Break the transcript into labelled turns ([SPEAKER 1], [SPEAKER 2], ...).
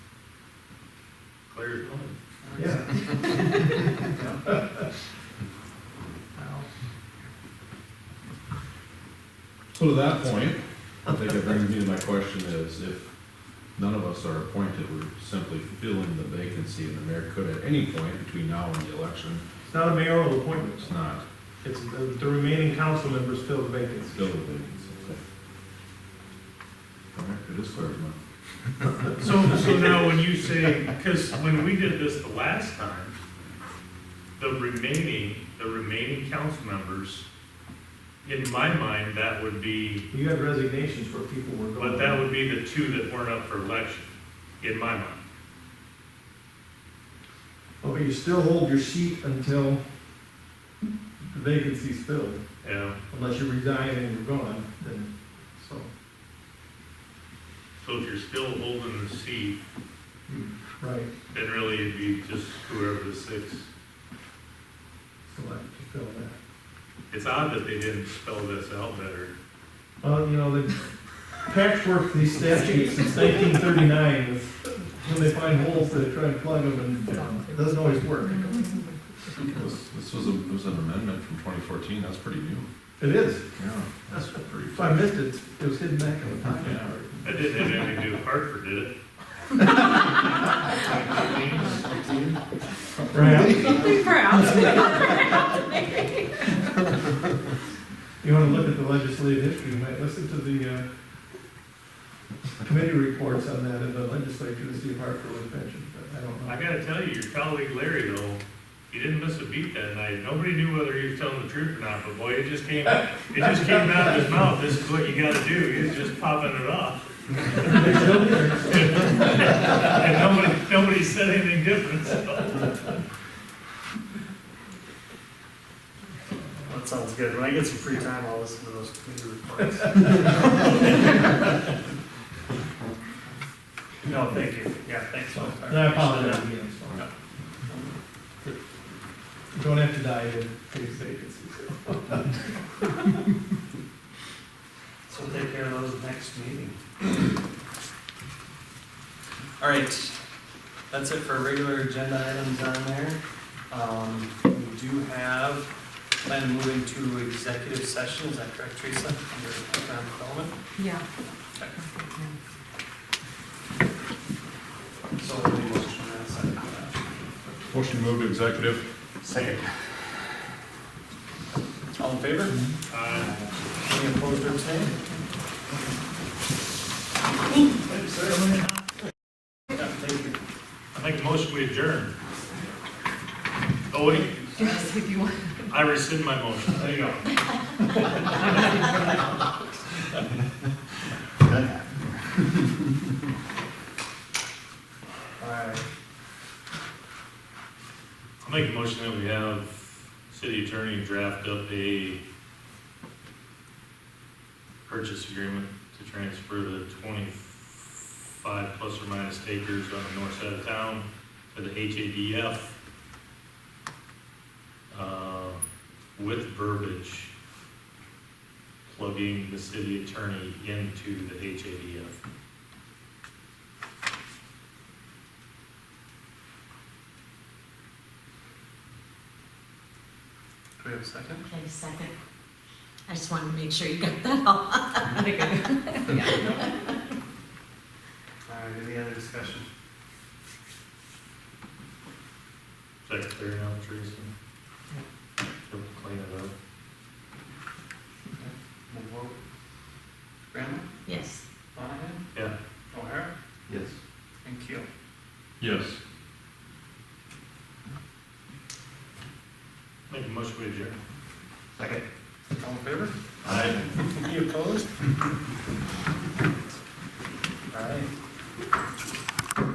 [SPEAKER 1] Players only.
[SPEAKER 2] Yeah.
[SPEAKER 3] So to that point, I think that brings me to my question is if none of us are appointed, we're simply filling the vacancy and the mayor could at any point between now and the election,
[SPEAKER 2] It's not a mayoral appointment,
[SPEAKER 3] it's not
[SPEAKER 2] it's the the remaining council members fill the vacancy.
[SPEAKER 3] fill the vacancy. All right, it is clear as mud.
[SPEAKER 1] So, so now when you say, because when we did this the last time, the remaining, the remaining council members, in my mind, that would be,
[SPEAKER 2] You had resignations where people were going.
[SPEAKER 1] but that would be the two that weren't up for election, in my mind.
[SPEAKER 2] Oh, But you still hold your seat until the vacancy's filled,
[SPEAKER 1] Yeah,
[SPEAKER 2] unless you resign and you're gone, then, so.
[SPEAKER 1] so if you're still holding the seat,
[SPEAKER 2] Right,
[SPEAKER 1] then really it'd be just whoever the six.
[SPEAKER 2] select to fill that.
[SPEAKER 1] It's odd that they didn't spell this out better.
[SPEAKER 2] Well, you know, the patchwork, these statutes since nineteen thirty-nine, is when they find holes, they try and plug them and it doesn't always work.
[SPEAKER 3] This, this was a, was an amendment from twenty fourteen, that's pretty new.
[SPEAKER 2] It is,
[SPEAKER 3] Yeah. That's pretty.
[SPEAKER 2] if I missed it, it was hidden back in the
[SPEAKER 3] Yeah.
[SPEAKER 2] pocket.
[SPEAKER 1] That didn't have anything to do with Hartford, did it?
[SPEAKER 2] Right,
[SPEAKER 4] Be proud.
[SPEAKER 2] you wanna look at the legislative history, you might listen to the, uh, committee reports on that in the legislature to see if Hartford was mentioned, but I don't know.
[SPEAKER 1] I gotta tell you, your colleague Larry though, he didn't miss a beat that night. Nobody knew whether he was telling the truth or not, but boy, it just came, it just came out of his mouth. This is what you gotta do. He was just popping it off.
[SPEAKER 2] There's no difference.
[SPEAKER 1] And nobody, nobody said anything different, so.
[SPEAKER 5] That sounds good. When I get some free time, I'll listen to those committee reports. No, thank you. Yeah, thanks.
[SPEAKER 2] So, And I apologize again, so. You Don't have to die in case vacancies.
[SPEAKER 5] So take care of those next meeting.
[SPEAKER 6] All right, that's it for regular agenda items on there. Um, we do have, plan to move into executive session, is that correct, Teresa? Under economic development?
[SPEAKER 4] Yeah.
[SPEAKER 6] So we'll do motion and a second. for that.
[SPEAKER 3] Motion to move to executive.
[SPEAKER 5] Second.
[SPEAKER 6] All in favor?
[SPEAKER 1] Uh,
[SPEAKER 6] Any opposed or abstained? Yeah, thank you.
[SPEAKER 1] I make a motion we adjourn. Oh, wait,
[SPEAKER 4] Yes, if you want.
[SPEAKER 1] I rescind my motion. There you go.
[SPEAKER 6] All right.
[SPEAKER 1] I make a motion that we have city attorney draft up a purchase agreement to transfer the twenty-five plus or minus acres on the north side of town to the HADF uh, with verbiage plugging the city attorney into the HADF.
[SPEAKER 6] Do we have a second?
[SPEAKER 4] Okay, second. I just wanted to make sure you got that all.
[SPEAKER 6] All right, any other discussion?
[SPEAKER 1] Is that clear now, Teresa? Yep, Clean it up.
[SPEAKER 6] We'll vote. Graham,
[SPEAKER 4] Yes.
[SPEAKER 6] Monahan,
[SPEAKER 1] Yeah.
[SPEAKER 6] O'Hara,
[SPEAKER 2] Yes.
[SPEAKER 6] and Keel.
[SPEAKER 3] Yes.
[SPEAKER 1] Make a motion we adjourn.
[SPEAKER 5] Second.
[SPEAKER 6] All in favor?
[SPEAKER 3] Aye.
[SPEAKER 6] Any opposed? All right.